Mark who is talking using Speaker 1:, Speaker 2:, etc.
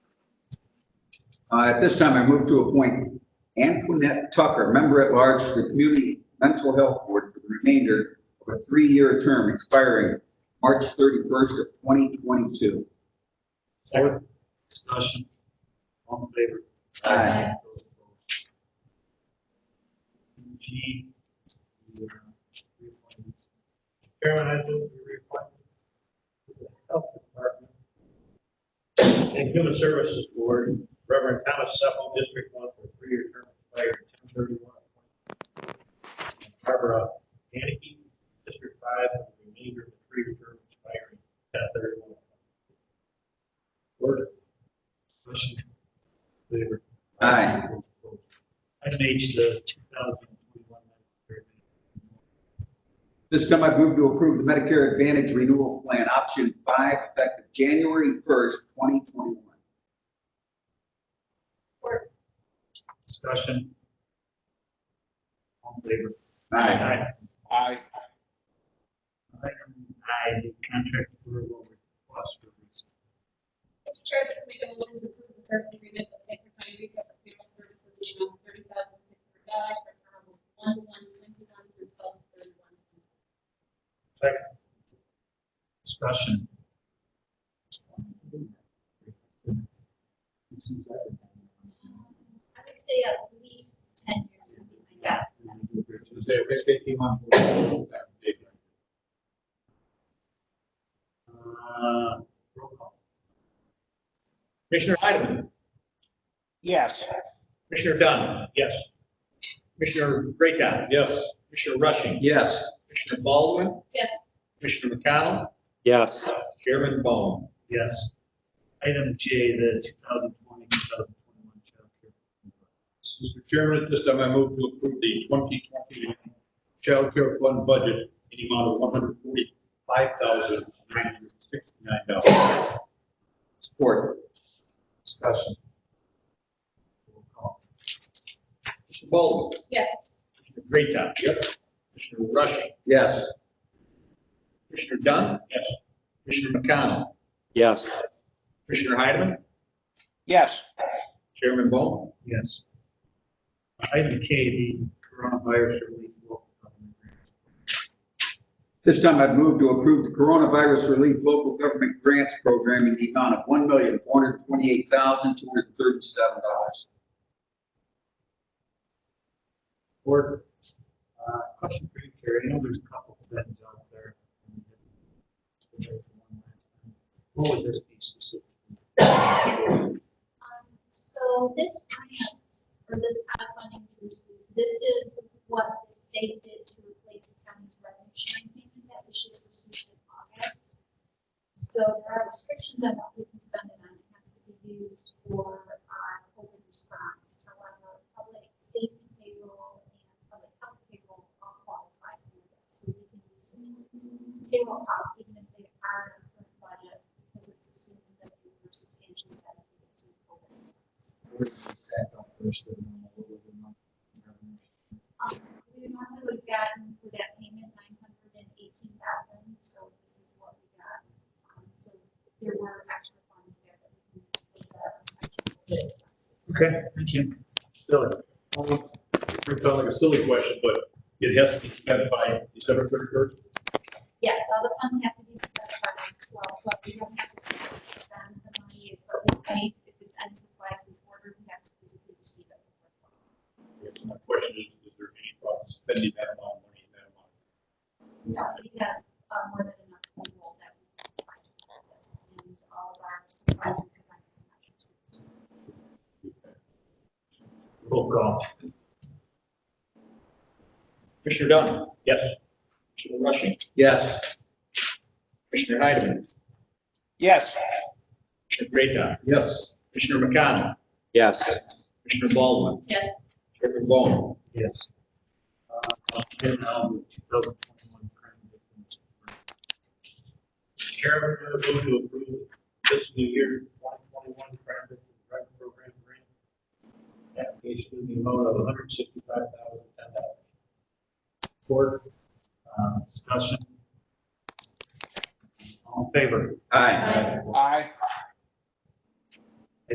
Speaker 1: Uh, At this time, I move to appoint Antoinette Tucker, Member at Large to the Community Mental Health Board for the remainder of a three-year term expiring March 31st of 2022.
Speaker 2: Second. Discussion. All in favor?
Speaker 1: Aye.
Speaker 2: Those opposed? G. the, uh, reappointment. Chairman, I move the reappointment to the Health Department and Human Services Board, Reverend Thomas Sepple, District One, for a three-year term expired ten thirty-one. Barbara Aniki, District Five, for the remainder of the three-year term expiring ten thirty-one. Order. Motion. Favor.
Speaker 1: Aye.
Speaker 2: Item H, the two thousand twenty-one.
Speaker 1: This time, I move to approve the Medicare Advantage Renewal Plan Option 5 effective January 1st, 2021.
Speaker 2: Discussion. All in favor?
Speaker 3: Aye.
Speaker 2: Item I, the contract approval request for recent.
Speaker 4: Mr. Chair, I'd like to make a motion to approve the service agreement with Sanford County Reset for funeral services in the amount of thirty thousand six hundred dollars for term of one one twenty-one through twelve thirty-one.
Speaker 2: Second. Discussion.
Speaker 4: I would say at least ten years would be my guess. yes.
Speaker 2: Uh, roll call.
Speaker 5: Commissioner Heidemann,
Speaker 3: Yes.
Speaker 5: Commissioner Dunn,
Speaker 2: Yes.
Speaker 5: Commissioner Greatham,
Speaker 2: Yes.
Speaker 5: Commissioner Rushing,
Speaker 1: Yes.
Speaker 5: Commissioner Baldwin,
Speaker 4: Yes,
Speaker 5: Commissioner McConnell,
Speaker 3: Yes.
Speaker 5: Chairman Bone.
Speaker 2: Yes. Item J, the 2020, 2021 child care.
Speaker 6: Mr. Chairman, at this time I move to approve the 2021 Child Care Fund budget in the amount of $145,969.
Speaker 1: Support.
Speaker 2: Discussion. Roll call.
Speaker 5: Commissioner Baldwin,
Speaker 4: yes,
Speaker 5: Commissioner Greatham. Yep. Commissioner Rushing,
Speaker 1: Yes.
Speaker 5: Commissioner Dunn.
Speaker 2: Yes.
Speaker 5: Commissioner McConnell,
Speaker 3: Yes.
Speaker 5: Commissioner Heidemann,
Speaker 3: Yes.
Speaker 5: Chairman Bone.
Speaker 2: Yes. Item K, the coronavirus relief local government grants.
Speaker 1: This time I've moved to approve the Coronavirus Relief Local Government Grants Program in the amount of $1,428,237.
Speaker 2: Or, uh, question for you, Carrie, I know there's a couple of things out there. What would this be specifically?
Speaker 7: Um, So this grant, or this pot funding we received, this is what the state did to replace county's revenue sharing payment that we should have received in August. So there are restrictions on what we can spend it on, it has to be used for our COVID response. However, public safety payroll and public health payroll are qualified for that, so we can use it as payroll costs, even if they are in the current budget because it's assumed that they were substantially dedicated to COVID response. Um, we normally would have gotten for that payment nine hundred and eighteen thousand, so this is what we got. Um, so there were extra funds there that we can use for the actual COVID expenses.
Speaker 2: Okay, thank you.
Speaker 6: Silly. It sounds like Um, a silly question, but it has to be spent by December 31st.
Speaker 7: Yes, all the funds have to be spent by nine twelve, but we don't have to spend the money, but we pay, if it's any supplies we order, we have to physically receive it. before twelve.
Speaker 6: So My question is, is there any problem spending that amount of money in that amount?
Speaker 7: No, we have uh, more than enough people that we can provide for this and all of our supplies and preventive measures.
Speaker 2: Roll call.
Speaker 5: Commissioner Dunn,
Speaker 2: Yes.
Speaker 5: Commissioner Rushing,
Speaker 1: Yes.
Speaker 5: Commissioner Heidemann,
Speaker 3: Yes.
Speaker 5: Commissioner Greatham,
Speaker 6: Yes.
Speaker 5: Commissioner McConnell,
Speaker 3: Yes.
Speaker 5: Commissioner Baldwin,
Speaker 4: yes.
Speaker 5: Chairman Bone.
Speaker 2: Yes. Uh, And now the 2021 crime victims. Chairman, I move to approve fiscal year 2021 crime victim grant program grant. Application in the amount of $165,010. Support, uh, discussion. All in favor?
Speaker 1: Aye.